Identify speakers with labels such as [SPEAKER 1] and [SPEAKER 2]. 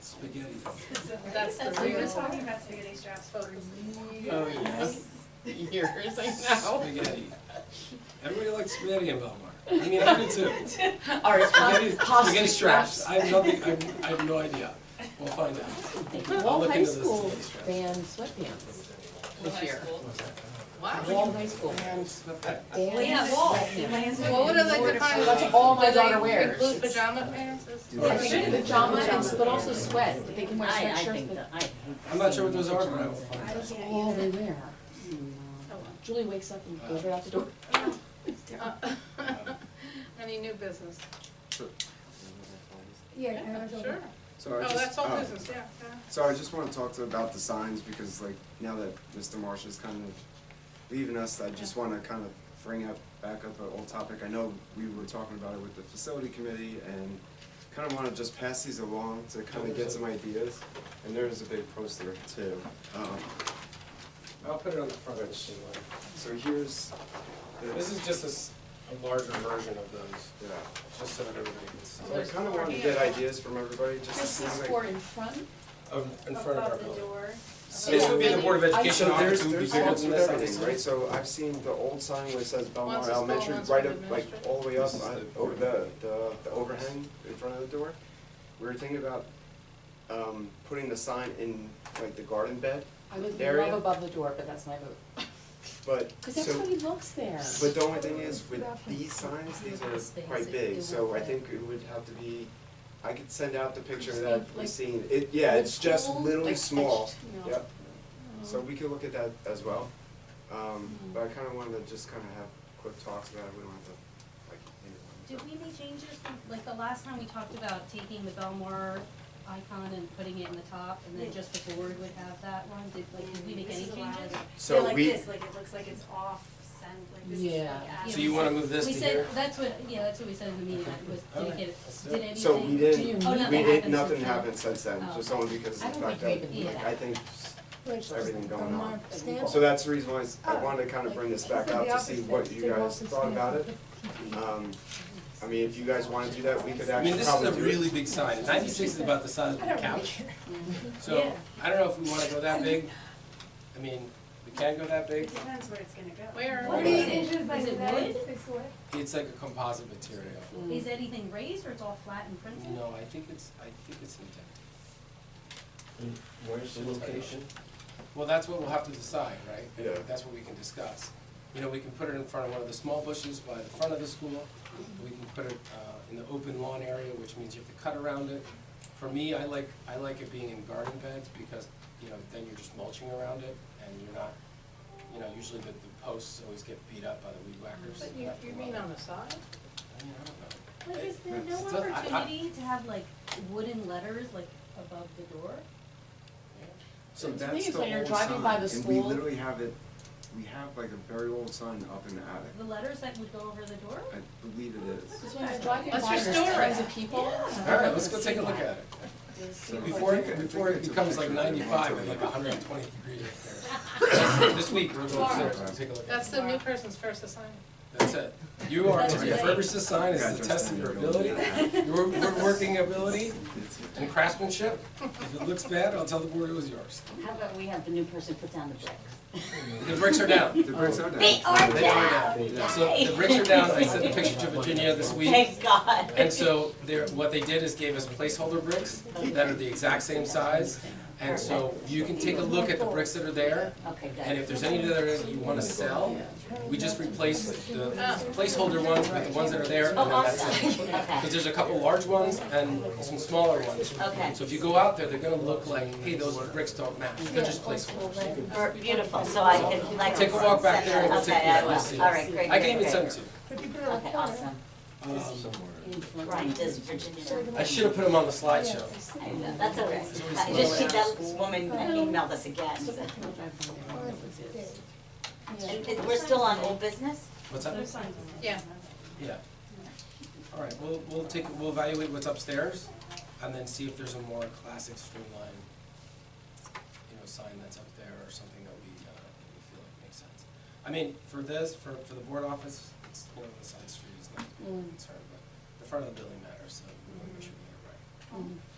[SPEAKER 1] spaghetti.
[SPEAKER 2] That's the
[SPEAKER 3] We
[SPEAKER 2] real
[SPEAKER 3] were
[SPEAKER 2] one.
[SPEAKER 3] talking about spaghetti straps for
[SPEAKER 4] Oh,
[SPEAKER 3] years.
[SPEAKER 4] Years, I know.
[SPEAKER 1] Spaghetti. Everybody likes spaghetti in Belmar. I mean, I do too.
[SPEAKER 4] All right,
[SPEAKER 1] Spaghetti,
[SPEAKER 4] pasta
[SPEAKER 1] spaghetti straps. I have nothing, I have, I have no idea. We'll find out. I'll
[SPEAKER 4] Wall
[SPEAKER 1] look
[SPEAKER 4] High
[SPEAKER 1] into this
[SPEAKER 4] School
[SPEAKER 1] spaghetti straps.
[SPEAKER 4] banned sweatpants this
[SPEAKER 2] High
[SPEAKER 4] year.
[SPEAKER 2] school. Wow.
[SPEAKER 4] Wall High School.
[SPEAKER 1] And not that.
[SPEAKER 4] Banned
[SPEAKER 2] yeah, wall.
[SPEAKER 4] sweatpants.
[SPEAKER 2] What would I like to find?
[SPEAKER 4] That's all my
[SPEAKER 2] Do they
[SPEAKER 4] daughter wears.
[SPEAKER 2] Include pajama pants? Is-
[SPEAKER 1] Or
[SPEAKER 4] I think
[SPEAKER 1] shit.
[SPEAKER 4] pajama and, but also sweat, but they can wear
[SPEAKER 5] I, I
[SPEAKER 4] sweatshirts,
[SPEAKER 5] think
[SPEAKER 4] but
[SPEAKER 5] that, I.
[SPEAKER 1] I'm not sure what those are, but I will find out.
[SPEAKER 3] I
[SPEAKER 4] that's
[SPEAKER 3] can't
[SPEAKER 4] all
[SPEAKER 3] either.
[SPEAKER 4] they wear. Julie wakes up and goes right out the door.
[SPEAKER 2] Uh, Any new business?
[SPEAKER 3] Yeah, I
[SPEAKER 2] Yeah,
[SPEAKER 3] don't know.
[SPEAKER 2] Sure.
[SPEAKER 6] So
[SPEAKER 2] Oh,
[SPEAKER 6] I just,
[SPEAKER 2] that's all
[SPEAKER 6] oh,
[SPEAKER 2] business, yeah. yeah.
[SPEAKER 6] So I just wanna talk to about the signs, because like, now that Mr. Marsh is kind of leaving us, I just wanna kind of bring up, back up an old topic. I know we were talking about it with the facility committee, and kind of wanna just pass these along to kind of get some ideas. And there's a big poster too. Um,
[SPEAKER 1] I'll put it on the front of the sheet.
[SPEAKER 6] So here's,
[SPEAKER 1] This is just a s- a larger version of those,
[SPEAKER 6] yeah,
[SPEAKER 1] just so that everybody can see.
[SPEAKER 6] so I kind of wanted to get ideas from everybody, just to
[SPEAKER 4] This
[SPEAKER 6] see
[SPEAKER 4] is
[SPEAKER 6] like.
[SPEAKER 4] for in front.
[SPEAKER 1] Of- In front of our
[SPEAKER 3] Above the
[SPEAKER 1] building.
[SPEAKER 3] door.
[SPEAKER 1] So This would be the Board of
[SPEAKER 4] I-
[SPEAKER 1] Education
[SPEAKER 6] So there's,
[SPEAKER 1] opportunity.
[SPEAKER 6] there's
[SPEAKER 1] bigger
[SPEAKER 6] signs
[SPEAKER 1] than
[SPEAKER 6] with
[SPEAKER 1] this,
[SPEAKER 6] everything,
[SPEAKER 1] obviously.
[SPEAKER 6] right, so I've seen the old sign where it says
[SPEAKER 2] One's
[SPEAKER 6] Belmar
[SPEAKER 2] a school,
[SPEAKER 6] Elementary,
[SPEAKER 2] one's
[SPEAKER 6] right
[SPEAKER 2] for
[SPEAKER 6] up, like,
[SPEAKER 2] administrative.
[SPEAKER 6] all the way
[SPEAKER 1] This
[SPEAKER 6] up,
[SPEAKER 1] is
[SPEAKER 6] uh,
[SPEAKER 1] the-
[SPEAKER 6] over the, the, the overhang in front of the door. We were thinking about, um, putting the sign in, like, the garden bed,
[SPEAKER 4] I would
[SPEAKER 6] Area.
[SPEAKER 4] love above the door, but that's my vote.
[SPEAKER 6] but,
[SPEAKER 4] Cause that's how
[SPEAKER 6] so,
[SPEAKER 4] he looks there.
[SPEAKER 6] but the only thing is, with these signs, these are quite bbig, so I think it would have to be, I could send out the picture
[SPEAKER 4] Just
[SPEAKER 6] that
[SPEAKER 4] like-
[SPEAKER 6] we seen, it, yeah, it's just
[SPEAKER 4] Cool,
[SPEAKER 6] literally
[SPEAKER 4] like
[SPEAKER 6] small,
[SPEAKER 4] etched, you know. Oh.
[SPEAKER 6] yep. So we could look at that as well, um,
[SPEAKER 4] Hmm.
[SPEAKER 6] but I kinda wanted to just kinda have quick talks about it, we don't have to, like,
[SPEAKER 5] Did we make changes, from- like the last time we talked about taking the Belmar icon and putting it in the top, and then just the board would have that one, did, like, did we make
[SPEAKER 3] This
[SPEAKER 5] any
[SPEAKER 3] is a lot of-
[SPEAKER 5] changes?
[SPEAKER 6] So
[SPEAKER 3] They're like
[SPEAKER 6] we-
[SPEAKER 3] this, like it looks like it's off scent, like this is like
[SPEAKER 4] Yeah.
[SPEAKER 3] out
[SPEAKER 1] So
[SPEAKER 3] of-
[SPEAKER 1] you wanna move this to
[SPEAKER 5] We said,
[SPEAKER 1] here?
[SPEAKER 5] that's what, yeah, that's what we said in the meeting, like, was, did
[SPEAKER 1] Okay.
[SPEAKER 5] it,
[SPEAKER 1] That's it.
[SPEAKER 5] get- did anything?
[SPEAKER 6] So we didn't,
[SPEAKER 4] Do you-
[SPEAKER 5] Oh,
[SPEAKER 6] we
[SPEAKER 5] nothing
[SPEAKER 6] did,
[SPEAKER 5] happened.
[SPEAKER 6] nothing happened since then,
[SPEAKER 5] Oh,
[SPEAKER 6] just
[SPEAKER 5] okay.
[SPEAKER 6] only because
[SPEAKER 4] I
[SPEAKER 6] of the
[SPEAKER 4] don't
[SPEAKER 6] fact
[SPEAKER 4] think
[SPEAKER 6] that,
[SPEAKER 4] we
[SPEAKER 5] even-
[SPEAKER 6] like, I think, s- everything going on.
[SPEAKER 4] Stamp?
[SPEAKER 6] So that's the reason why is- I
[SPEAKER 3] Oh,
[SPEAKER 6] wanted to kind of
[SPEAKER 3] like,
[SPEAKER 6] bring this
[SPEAKER 3] is
[SPEAKER 6] back
[SPEAKER 3] it
[SPEAKER 6] up
[SPEAKER 3] the
[SPEAKER 6] to see
[SPEAKER 3] opposite?
[SPEAKER 6] what you
[SPEAKER 3] They
[SPEAKER 6] guys
[SPEAKER 3] both just
[SPEAKER 6] thought
[SPEAKER 3] stand
[SPEAKER 6] about
[SPEAKER 3] up.
[SPEAKER 6] it. Um, I mean, if you guys wanna do that, we could
[SPEAKER 1] I mean,
[SPEAKER 6] actually
[SPEAKER 1] this is
[SPEAKER 6] probably
[SPEAKER 1] a
[SPEAKER 6] do it.
[SPEAKER 1] really big sign. Ninety-six is about the size of
[SPEAKER 3] I
[SPEAKER 1] a
[SPEAKER 3] don't really
[SPEAKER 1] couch. So, I don't know if we wanna go that big. I mean, we can go that big.
[SPEAKER 3] It depends where it's gonna go.
[SPEAKER 2] Where?
[SPEAKER 1] What
[SPEAKER 3] What
[SPEAKER 1] do you
[SPEAKER 3] is
[SPEAKER 1] Is
[SPEAKER 5] it- think?
[SPEAKER 3] it?
[SPEAKER 5] is it wood?
[SPEAKER 1] It's like a composite material.
[SPEAKER 5] Is anything raised or it's all flat and printed?
[SPEAKER 1] No, I think it's, I think it's indented.
[SPEAKER 7] Where's the location?
[SPEAKER 1] Well, that's what we'll have to decide, right?
[SPEAKER 6] Yeah.
[SPEAKER 1] That's what we can discuss. You know, we can put it in front of one of the small bushes by the front of the school. We can put it uh, in the open lawn area, which means you have to cut around it. For me, I like, I like it being in garden beds because, you know, then you're just mulching around it and you're not, you know, usually the, the posts always get beat up by the weed whackers.
[SPEAKER 2] But you,
[SPEAKER 1] have to
[SPEAKER 2] you
[SPEAKER 1] mow
[SPEAKER 2] mean um,
[SPEAKER 1] it.
[SPEAKER 2] on the side?
[SPEAKER 1] I mean, I don't know.
[SPEAKER 5] Like, is there no
[SPEAKER 1] So, I- I-
[SPEAKER 5] opportunity to have like wooden letters, like, above the door?
[SPEAKER 6] So
[SPEAKER 4] The thing
[SPEAKER 6] that's
[SPEAKER 4] is,
[SPEAKER 6] the
[SPEAKER 4] when you're
[SPEAKER 6] old
[SPEAKER 4] driving by
[SPEAKER 6] sign,
[SPEAKER 4] the
[SPEAKER 6] And
[SPEAKER 4] school-
[SPEAKER 6] we literally have it, we have like a very old sign up in the attic,
[SPEAKER 5] The letters that would go over the door?
[SPEAKER 6] I believe it is.
[SPEAKER 4] Because when you're driving by,
[SPEAKER 2] Let's
[SPEAKER 4] there's
[SPEAKER 2] restore it.
[SPEAKER 4] tons of people.
[SPEAKER 1] All right, let's go take a look at it.
[SPEAKER 6] So
[SPEAKER 1] Before,
[SPEAKER 6] I think- I
[SPEAKER 1] it-
[SPEAKER 6] think
[SPEAKER 1] before it
[SPEAKER 6] it's a
[SPEAKER 1] becomes like
[SPEAKER 6] picture of it.
[SPEAKER 1] ninety-five and like hundred and twenty degrees up there. This week, we're going upstairs and take a look at it.
[SPEAKER 2] That's the new person's first assignment.
[SPEAKER 1] That's it. You are, to
[SPEAKER 5] That's right.
[SPEAKER 1] refurbish the sign
[SPEAKER 6] Yeah,
[SPEAKER 1] is a
[SPEAKER 6] just
[SPEAKER 1] test of your
[SPEAKER 6] go with
[SPEAKER 1] ability,
[SPEAKER 6] that.
[SPEAKER 1] your, your working ability
[SPEAKER 6] It's-
[SPEAKER 1] and craftsmanship. If it looks bad, I'll tell the board it was yours.
[SPEAKER 5] How about we have the new person put down the bricks?
[SPEAKER 1] The bricks are down.
[SPEAKER 6] The bricks
[SPEAKER 4] Oh.
[SPEAKER 6] are down.
[SPEAKER 5] They are
[SPEAKER 1] They are
[SPEAKER 5] down!
[SPEAKER 1] down. So the bricks are down. I sent the picture to Virginia this week.
[SPEAKER 5] Thank God.
[SPEAKER 1] And so they're, what they did is gave us placeholder bricks that are the exact same size. And so you can take a look at the bricks that are there.
[SPEAKER 5] Okay, good.
[SPEAKER 1] And if there's any that are- you wanna sell, we just replace the placeholder ones with the ones that are there and
[SPEAKER 5] Oh,
[SPEAKER 1] then that's it.
[SPEAKER 5] awesome,
[SPEAKER 1] Because
[SPEAKER 5] okay,
[SPEAKER 1] there's a couple large ones and some smaller ones.
[SPEAKER 5] okay.
[SPEAKER 1] So if you go out there, they're gonna look like, hey, those bricks don't match, they're just placeholders.
[SPEAKER 5] Or- Beautiful, so I can like.
[SPEAKER 1] Take a walk back there and we'll take a
[SPEAKER 5] Okay, I
[SPEAKER 1] look,
[SPEAKER 5] will,
[SPEAKER 1] we'll
[SPEAKER 5] all
[SPEAKER 1] see.
[SPEAKER 5] right, great,
[SPEAKER 1] I can
[SPEAKER 5] great,
[SPEAKER 1] even send it
[SPEAKER 5] great.
[SPEAKER 1] to you.
[SPEAKER 5] Okay, awesome,
[SPEAKER 1] Um,
[SPEAKER 5] right, this Virginia,
[SPEAKER 1] I should have put them on the slideshow.
[SPEAKER 5] I know, that's all right. I just, she, that woman emailed us again, so. And- and we're still on old business?
[SPEAKER 1] What's up?
[SPEAKER 2] Yeah.
[SPEAKER 1] Yeah. All right, we'll, we'll take, we'll evaluate what's upstairs and then see if there's a more classic streamlined, you know, sign that's up there or something that we, uh, that we feel like makes sense. I mean, for this, for, for the board office, it's, you know, the side street is not a big concern, but the front of the building matters, so we wanna make sure we get it right.